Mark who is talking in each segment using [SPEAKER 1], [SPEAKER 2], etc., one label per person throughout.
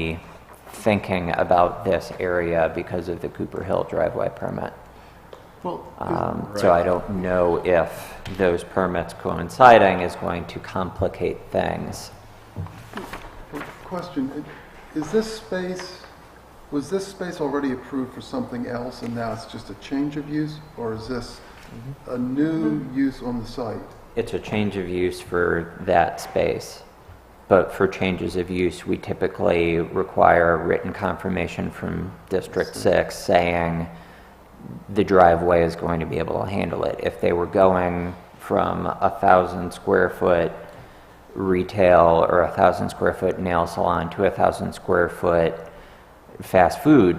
[SPEAKER 1] be thinking about this area because of the Cooper Hill driveway permit.
[SPEAKER 2] Well,
[SPEAKER 1] Um, So I don't know if those permits coinciding is going to complicate things.
[SPEAKER 2] is- question, is this space, was this space already approved for something else and now it's just a change of use? Or is this a new use on the site?
[SPEAKER 1] It's a change of use for that space, but for changes of use, we typically require written confirmation from District 6 saying the driveway is going to be able to handle it. If they were going from a 1,000 square foot retail or a 1,000 square foot nail salon to a 1,000 square foot fast food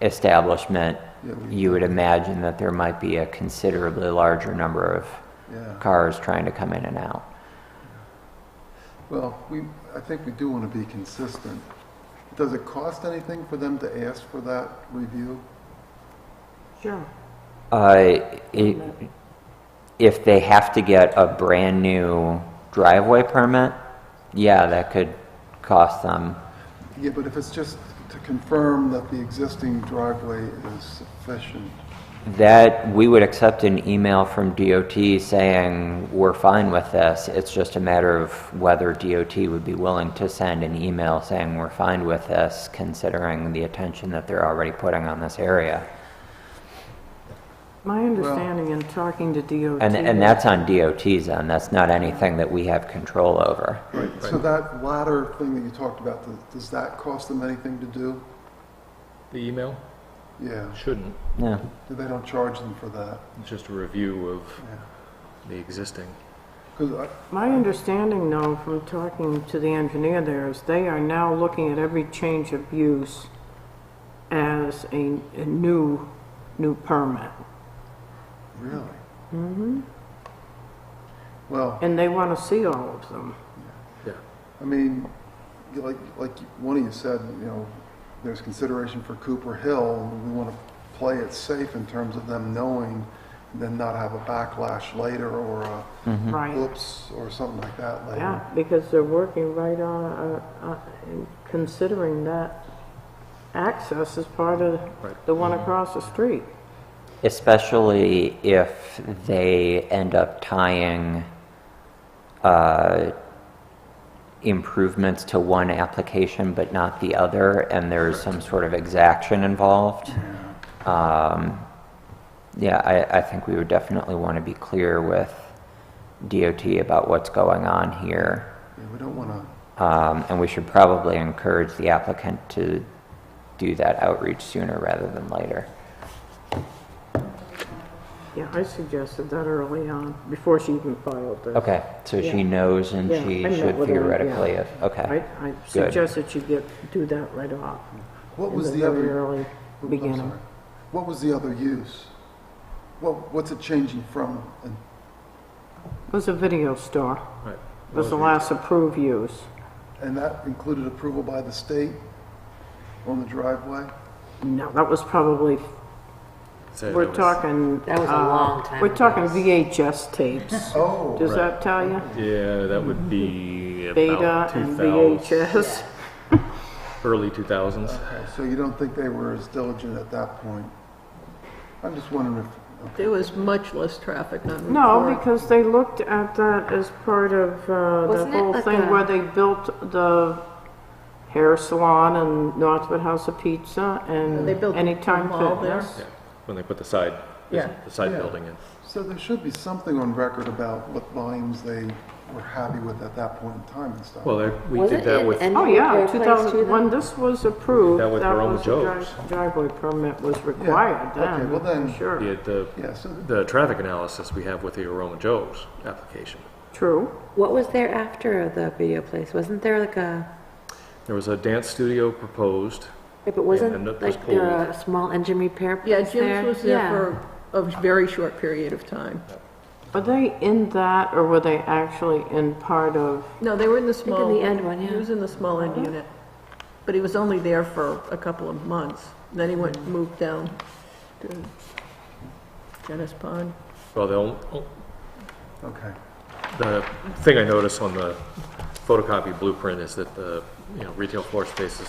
[SPEAKER 1] establishment,
[SPEAKER 2] Yeah, we-
[SPEAKER 1] you would imagine that there might be a considerably larger number of
[SPEAKER 2] Yeah,
[SPEAKER 1] cars trying to come in and out.
[SPEAKER 2] well, we, I think we do want to be consistent. Does it cost anything for them to ask for that review?
[SPEAKER 3] Sure.
[SPEAKER 1] Uh, it, if they have to get a brand new driveway permit, yeah, that could cost them.
[SPEAKER 2] Yeah, but if it's just to confirm that the existing driveway is sufficient,
[SPEAKER 1] That we would accept an email from DOT saying we're fine with this. It's just a matter of whether DOT would be willing to send an email saying we're fine with this, considering the attention that they're already putting on this area.
[SPEAKER 3] My understanding in talking to DOT.
[SPEAKER 1] And, and that's on DOT's end. That's not anything that we have control over.
[SPEAKER 2] so that latter thing that you talked about, does- does that cost them anything to do?
[SPEAKER 4] The email?
[SPEAKER 2] Yeah,
[SPEAKER 4] Shouldn't.
[SPEAKER 1] Yeah.
[SPEAKER 2] they don't charge them for that.
[SPEAKER 4] It's just a review of the existing.
[SPEAKER 2] Because I,
[SPEAKER 3] My understanding though, from talking to the engineer there, is they are now looking at every change of use as a, a new, new permit.
[SPEAKER 2] Really? Mm-hmm. Well,
[SPEAKER 3] And they want to see all of them.
[SPEAKER 4] Yeah.
[SPEAKER 2] I mean, you- like, like one of you said, you know, there's consideration for Cooper Hill, and we want to play it safe in terms of them knowing, and then not have a backlash later, or a
[SPEAKER 1] Mm-hmm.
[SPEAKER 3] Right.
[SPEAKER 2] whoops, or something like that later.
[SPEAKER 3] Yeah, because they're working right on, uh, uh, and considering that access is part of
[SPEAKER 4] Right.
[SPEAKER 3] the
[SPEAKER 1] Mm-hmm.
[SPEAKER 3] one across the street.
[SPEAKER 1] Especially if they end up tying uh, improvements to one application but not the other, and there's some sort of exaction involved. Um, Yeah, I, I think we would definitely want to be clear with DOT about what's going on here.
[SPEAKER 2] Yeah, we don't want to,
[SPEAKER 1] Um, And we should probably encourage the applicant to do that outreach sooner rather than later.
[SPEAKER 3] Yeah, I suggested that early on, before she even filed this.
[SPEAKER 1] Okay, so she
[SPEAKER 3] Yeah.
[SPEAKER 1] knows and
[SPEAKER 3] Yeah,
[SPEAKER 1] she
[SPEAKER 3] I met
[SPEAKER 1] should
[SPEAKER 3] with her, yeah.
[SPEAKER 1] theoretically, if-
[SPEAKER 3] I,
[SPEAKER 1] okay.
[SPEAKER 3] I suggest that you get, do that right off.
[SPEAKER 2] what
[SPEAKER 3] in
[SPEAKER 2] was the
[SPEAKER 3] very
[SPEAKER 2] other? Oh,
[SPEAKER 3] early
[SPEAKER 2] I'm
[SPEAKER 3] beginning.
[SPEAKER 2] sorry. What was the other use? What, what's it changing from? And-
[SPEAKER 3] It was a video store.
[SPEAKER 4] Right.
[SPEAKER 3] It was the last approved use.
[SPEAKER 2] And that included approval by the state on the driveway?
[SPEAKER 3] No, that was probably,
[SPEAKER 4] Said it
[SPEAKER 3] we're
[SPEAKER 4] was-
[SPEAKER 3] talking.
[SPEAKER 5] That was a
[SPEAKER 3] uh,
[SPEAKER 5] long time
[SPEAKER 3] We're talking
[SPEAKER 5] ago.
[SPEAKER 3] VHS tapes.
[SPEAKER 2] Oh.
[SPEAKER 3] Does that tell you?
[SPEAKER 4] Yeah, that would be
[SPEAKER 3] Beta
[SPEAKER 4] about
[SPEAKER 3] and
[SPEAKER 4] 2000,
[SPEAKER 3] VHS.
[SPEAKER 4] early 2000s.
[SPEAKER 2] Okay, So you don't think they were as diligent at that point? I'm just wondering if, okay,
[SPEAKER 6] There was much less traffic on
[SPEAKER 3] No,
[SPEAKER 6] Route 4.
[SPEAKER 3] because they looked at that as part of uh, the
[SPEAKER 5] Wasn't it
[SPEAKER 3] whole
[SPEAKER 5] like
[SPEAKER 3] thing
[SPEAKER 5] a-
[SPEAKER 3] where they built the hair salon and Northwood House of Pizza and
[SPEAKER 6] They built the
[SPEAKER 3] Anytime
[SPEAKER 6] mall there.
[SPEAKER 3] Fitness.
[SPEAKER 4] Yeah. When they put the side,
[SPEAKER 6] Yeah.
[SPEAKER 4] the side
[SPEAKER 2] Yeah.
[SPEAKER 4] building in.
[SPEAKER 2] so there should be something on record about what volumes they were happy with at that point in time and stuff.
[SPEAKER 4] Well, there- we
[SPEAKER 5] Was
[SPEAKER 4] did
[SPEAKER 5] it
[SPEAKER 4] that
[SPEAKER 5] in
[SPEAKER 4] with,
[SPEAKER 5] Enfield
[SPEAKER 3] Oh, yeah,
[SPEAKER 5] Place
[SPEAKER 3] two
[SPEAKER 5] too,
[SPEAKER 3] thousand,
[SPEAKER 5] then?
[SPEAKER 3] when this was approved, that
[SPEAKER 4] That
[SPEAKER 3] was
[SPEAKER 4] was Roma
[SPEAKER 3] a
[SPEAKER 4] Joe's.
[SPEAKER 3] dri- driveway permit was required
[SPEAKER 2] Okay,
[SPEAKER 3] then,
[SPEAKER 2] well then-
[SPEAKER 3] for sure.
[SPEAKER 4] did the,
[SPEAKER 2] Yeah, so,
[SPEAKER 4] the traffic analysis we have with the Aroma Joe's application.
[SPEAKER 3] True.
[SPEAKER 5] What was there after the video place? Wasn't there like a,
[SPEAKER 4] There was a dance studio proposed.
[SPEAKER 5] yeah, but wasn't
[SPEAKER 4] and that was
[SPEAKER 5] like there
[SPEAKER 4] pulled.
[SPEAKER 5] a small engine repair place
[SPEAKER 6] Yeah,
[SPEAKER 5] there?
[SPEAKER 6] Jim's was
[SPEAKER 5] Yeah.
[SPEAKER 6] there for a very short period of time.
[SPEAKER 3] Are they in that, or were they actually in part of,
[SPEAKER 6] No, they were in the
[SPEAKER 5] in
[SPEAKER 6] small.
[SPEAKER 5] the end one, yeah. Uh-huh.
[SPEAKER 6] He was in the small end unit, but he was only there for a couple of months. And Then he went, moved down to Dennis Pond.
[SPEAKER 4] Well, the, on-
[SPEAKER 2] okay.
[SPEAKER 4] The thing I noticed on the photocopy blueprint is that the, you know, retail floor space is